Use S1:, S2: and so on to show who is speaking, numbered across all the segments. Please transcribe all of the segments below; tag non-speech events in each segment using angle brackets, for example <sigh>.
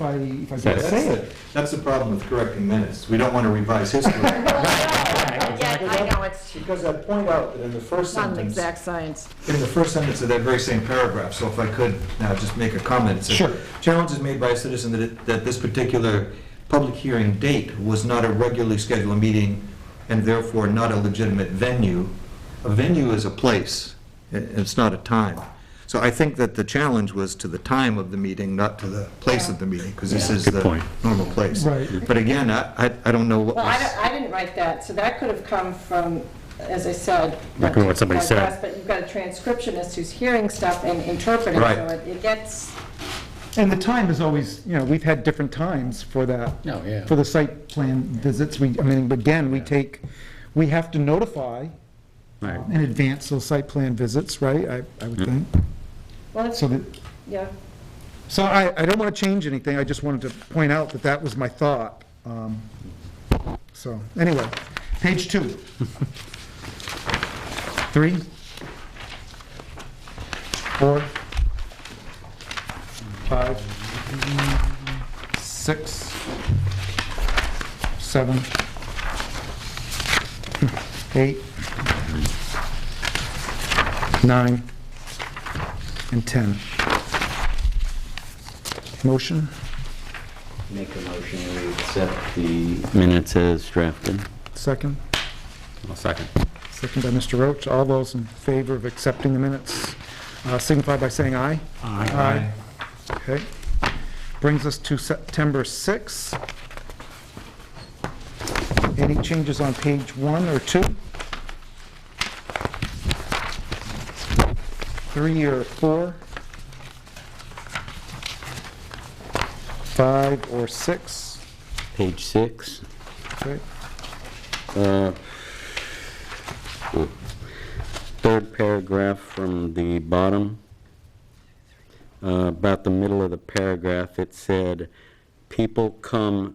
S1: if I, if I
S2: That's-
S1: could say it.
S3: That's the problem with correcting minutes. We don't want to revise history.
S4: Yeah, I know, it's
S3: Because I point out that in the first
S4: not an
S3: sentence,
S4: exact science.
S3: in the first sentence of that very same paragraph, so if I could now just make a comment. it says,
S1: Sure.
S3: Challenge is made by a citizen that, it- that this particular public hearing date was not a regularly scheduled meeting and therefore not a legitimate venue. A venue is a place, i- it's not a time. So I think that the challenge was to the time of the meeting, not to the place of the meeting, because this is
S2: Good
S3: the
S2: point.
S3: normal place.
S1: Right.
S3: But again, I, I- I don't know what
S4: Well,
S3: was.
S4: I don't- I didn't write that, so that could have come from, as I said.
S2: Like what somebody
S4: my
S2: said.
S4: boss, But you've got a transcriptionist who's hearing stuff and interpreting,
S3: Right.
S4: so it- it gets,
S1: And the time is always, you know, we've had different times for that.
S2: Oh, yeah.
S1: For the site plan visits, we, I mean, again, we take, we have to notify
S2: Right. Mm-hmm.
S1: in advance those site plan visits, right, I, I would think.
S4: well, it's,
S1: So that,
S4: yeah.
S1: so I, I don't want to change anything, I just wanted to point out that that was my thought. Um, So, anyway, page two. <laughs> Three. Four. Five. Six. Seven. Eight. Nine. And 10. Motion?
S5: Make a motion to accept the
S2: Minutes as drafted.
S1: Second?
S2: I'll second.
S1: Second by Mr. Roach. All those in favor of accepting the minutes uh, signify by saying aye. Aye. Okay. Brings us to September 6. Any changes on page one or two? Three or four? Five or six?
S2: Page six.
S1: Okay.
S2: uh, Third paragraph from the bottom. Uh, About the middle of the paragraph, it said, "People come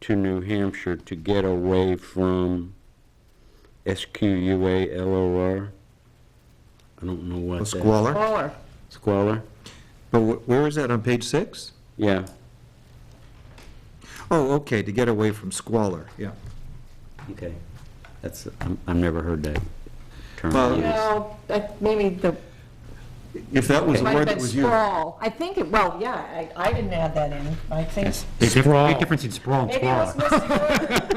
S2: to New Hampshire to get away from SQUA LOR." I don't know what that.
S3: Squalor.
S4: Or,
S2: Squalor?
S3: But wh- where is that, on page six?
S2: Yeah.
S3: Oh, okay, to get away from squalor, yeah.
S2: Okay. That's, I'm- I've never heard that term
S3: Well-
S2: used.
S4: well, that- maybe the,
S3: If that was the
S4: might have
S3: word
S4: been
S3: that was used.
S4: sprawl. I think, it well, yeah, I I didn't add that in, I think.
S6: There's a diff- big difference in sprawl and
S4: Maybe it was
S6: squalor.
S3: <laughs>
S4: misheard. It could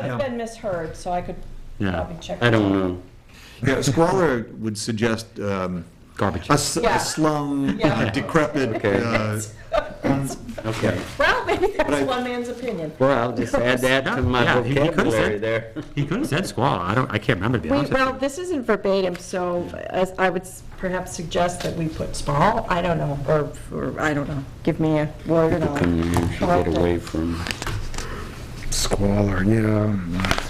S3: Yeah.
S4: have been misheard, so I could
S2: Yeah,
S4: probably check.
S2: I
S4: it.
S2: don't know.
S3: Yeah, squalor would suggest um,
S6: Garbage.
S3: a s-
S4: Yeah.
S3: a slum,
S4: <laughs> Yeah.
S3: uh, decrepit,
S2: Okay.
S3: uh,
S2: Okay.
S4: <laughs> Well, maybe
S3: But I-
S4: that's one man's opinion.
S2: Well, I'll just add that to my
S6: Yeah, he- he could've said-
S2: vocabulary there.
S6: He could have said squalor, I don't, I can't remember to be
S4: We,
S6: honest with
S4: well,
S6: you.
S4: this isn't verbatim, so as- I would s- perhaps suggest that we put small, I don't know, or, or, I don't know. Give me a word and I'll.
S2: Come here, she
S4: correct
S2: <laughs> get
S4: it.
S2: away from,
S1: Squalor, yeah.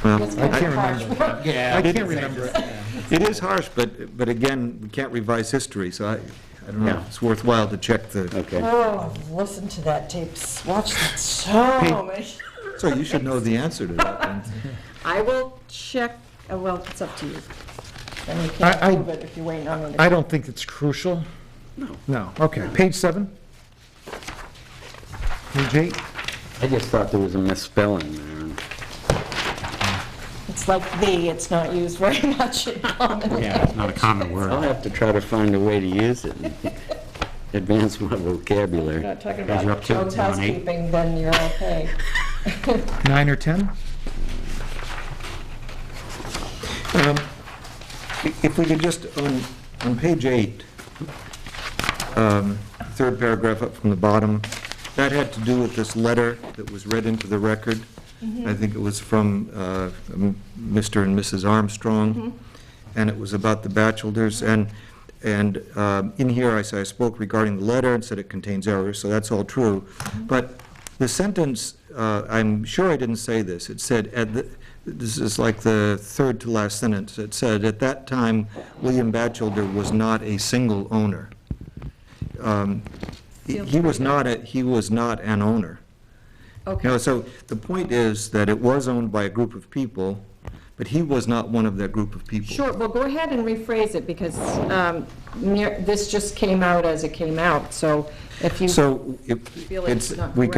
S3: well,
S1: I can't remember. I can't remember. it.
S3: it is harsh, but, but again, we can't revise history, so I, I don't know,
S2: Yeah.
S3: it's worthwhile to check the,
S2: okay.
S4: Oh, I've listened to that tape, s- watched that so many.
S3: so you should know the answer to that. then.
S4: I will check, uh, well, it's up to you. Then you
S1: I- I-
S4: can prove it if you're waiting on me to.
S1: I don't think it's crucial. No. No, okay. Page seven? Page eight?
S2: I just thought there was a misspelling there.
S4: It's like the, it's not used very <laughs> much in common.
S6: Yeah, it's not a common
S2: I'll
S6: word.
S2: have to try to find a way to use it and <laughs> advance my vocabulary.
S4: Not talking
S6: Guys, you're
S4: about
S6: up to
S4: Joe's
S6: it, Ron, eight.
S4: housekeeping, then you're okay.
S1: Nine or 10?
S3: Um, i- If we could just, on, on page eight, um, third paragraph up from the bottom, that had to do with this letter that was read into the record. I think it was from uh, m- Mr. and Mrs. Armstrong, and it was about the bachelors, and, and um, in here, I said, I spoke regarding the letter and said it contains errors, so that's all true. But the sentence, uh, I'm sure I didn't say this, it said, at the- this is like the third to last sentence, it said, "At that time, William Batchelder was not a single owner." Um, He he was not, a he was not an owner. You know, so the point is that it was owned by a group of people, but he was not one of that group of people.
S4: Sure, well, go ahead and rephrase it, because um, near- this just came out as it came out, so if you
S3: So if
S4: feel it's
S3: it's,
S4: not
S3: we